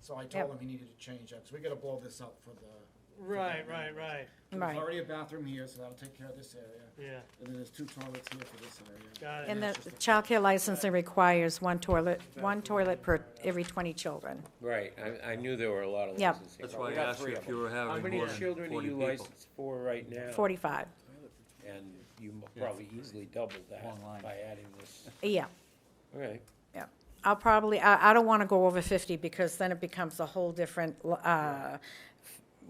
So I Yep. told him he needed to change that, because we gotta blow this up for the, Right, right, right, there's Right. already a bathroom here, so that'll take care of this area. yeah, And then there's two toilets here for this area. got And it, the childcare licensing requires one toilet, one toilet per every 20 children. Right, I, I knew there were a lot of Yeah. licensing. That's but why we I got asked you three if of you them. were How having many more than children are forty you people. licensed for right now? 45, And you mo- probably easily doubled Long line. that by adding this. yeah, All right, yeah. I'll probably, I, I don't want to go over 50 because then it becomes a whole different, uh,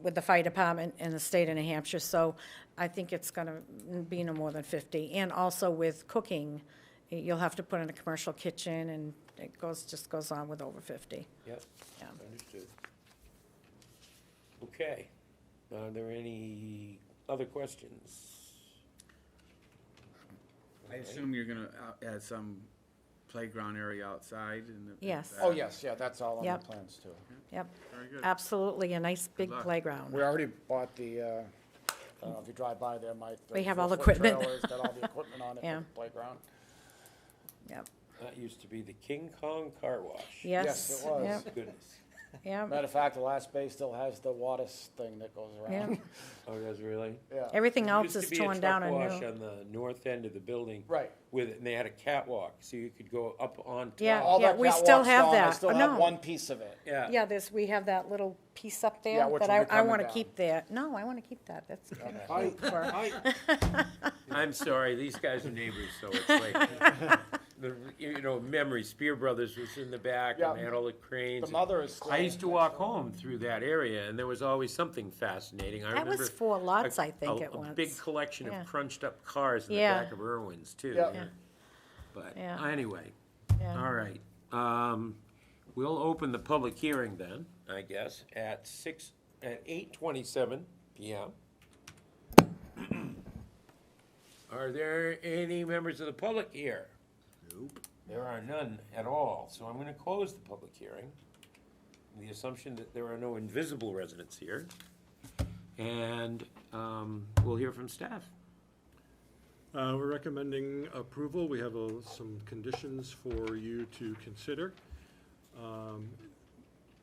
with the fire department in the state of New Hampshire. So I think it's going to be no more than 50. And also with cooking, you'll have to put in a commercial kitchen and it goes, just goes on with over 50. yep, Yeah. understood. Okay, are there any other questions? I assume you're gonna out- add Uh, some playground area outside and. the- Yes. Oh, yes, yeah, that's all on the Yep. plans too. Yep, Very good. absolutely, a nice big luck. playground. We already bought the, uh, I don't know if you drive by there, Mike. the We have all the four-foot equipment. trailer's Got all the equipment on it, Yeah. for the playground. Yep, That used to be the King Kong Car Wash. yes. it was. Yep, Goodness, yep, Matter of fact, the last bay still has the water thing that goes yep. around. oh, that's really? Yeah, Everything There else used to is be a torn down truck and wash new. On the north end of the building. Right. With, it, and they had a catwalk, so you could go up on top. Yeah. All that we catwalk's still have gone, I that. still Oh, have no. one piece of it. Yeah. Yeah, there's, we have that little piece up there Yeah, which that will I, be I coming want to down. keep there. No, I want to keep that, that's kind of cute for, I'm sorry, these guys are neighbors, so it's like, the, you know, memory, Spear Brothers was in the back, and they had all the cranes. The mother is. I used to walk home through that area, and there was always something fascinating, I that remember. was four lots, a- I think, a- at A big once. collection Yeah. of crunched-up cars in the Yeah. back of Irwin's, too. Yeah. there. But, Yeah. anyway, Yeah. all right, um, we'll open the public hearing then, I guess, at six, at eight twenty-seven PM. Are there any members of the public here? Nope. There are none at all, so I'm gonna close the public hearing. on The assumption that there are no invisible residents here. And, um, we'll hear from staff. Uh, We're recommending approval. We have uh, some conditions for you to consider. Um,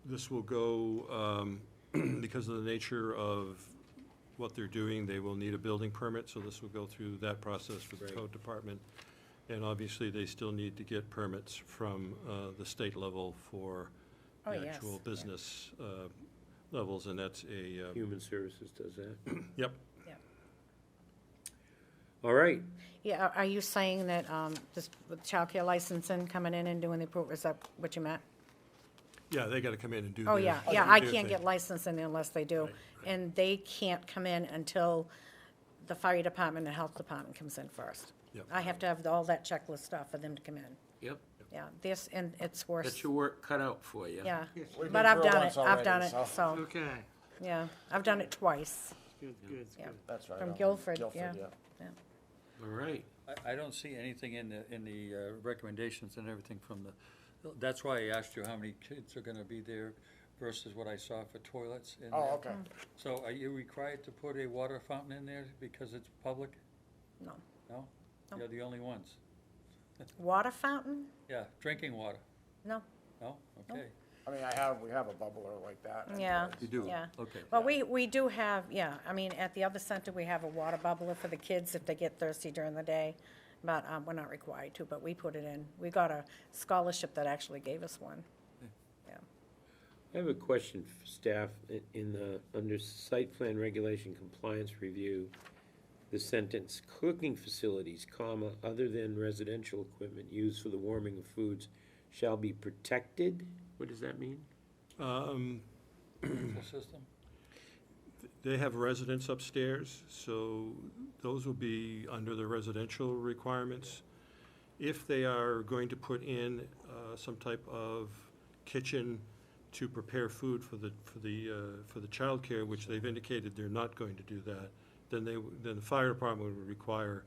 This will go, um, because of the nature of what they're doing, they will need a building permit, so this will go through that process with the code department. And obviously, they still need to get permits from uh, the state level for the Oh, yes, actual yeah. business uh, levels, and that's a, uh, Human Services does that. yep. All right, Yeah, are- are you saying that, um, just with childcare licensing coming in and doing the approval, is that what you meant? Yeah, they got to come in and do their. Oh, yeah, yeah, I do their can't thing. get licensing unless they do. And they can't come in until the fire department and health department comes in first. Yep. I have to have all that checklist stuff for them to come in. yep, Yeah, this, and it's worse, got your work cut out for you. yeah. We've But been I've through it done once it, I've already, done it, so- so, okay, yeah, I've done it twice. good, good, Yeah. good. That's right. um, From on Guilford, yeah. All right. I, I don't see anything in the, in the uh, recommendations and everything from the, that's why I asked you how many kids are gonna be there versus what I saw for toilets. in Oh, there. okay. So are you required to put a water fountain in there because it's public? No. No? You're the only ones. Water fountain? Yeah, drinking water, No, no? Okay. I mean, I have, we have a bubbler like that. yeah, anyways. You do? yeah. Okay. Well, we, we do have, yeah, I mean, at the other center, we have a water bubbler for the kids if they get thirsty during the day. But, um, we're not required to, but we put it in. We got a scholarship that actually gave us one. Yeah. I have a question for staff. I- In the, under site plan regulation compliance review, the sentence, cooking facilities, comma, other than residential equipment used for the warming of foods shall be protected? What does that mean? Um, Full system? They have residents upstairs, so those will be under the residential requirements. If they are going to put in uh, some type of kitchen to prepare food for the, for the, uh, for the childcare, which they've indicated they're not going to do that, then they, w- then the fire department would require,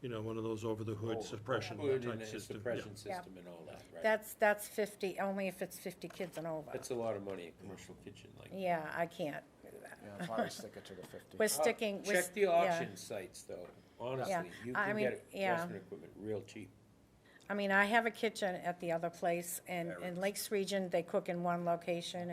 you know, one of those over-the-hood suppression type system. yeah. Oh, Suppression system and all that, right? That's, that's fifty, only if it's fifty kids and over. That's a lot of money, a commercial kitchen like. Yeah, I can't do that. Yeah, I'll probably stick it to the fifty. We're sticking, we're. uh, Check st- the yeah. auction sites, though. Honestly, you I can mean, get yeah. restaurant equipment real cheap. I mean, I have a kitchen at the other place, and in Lakes Region, they cook in one location,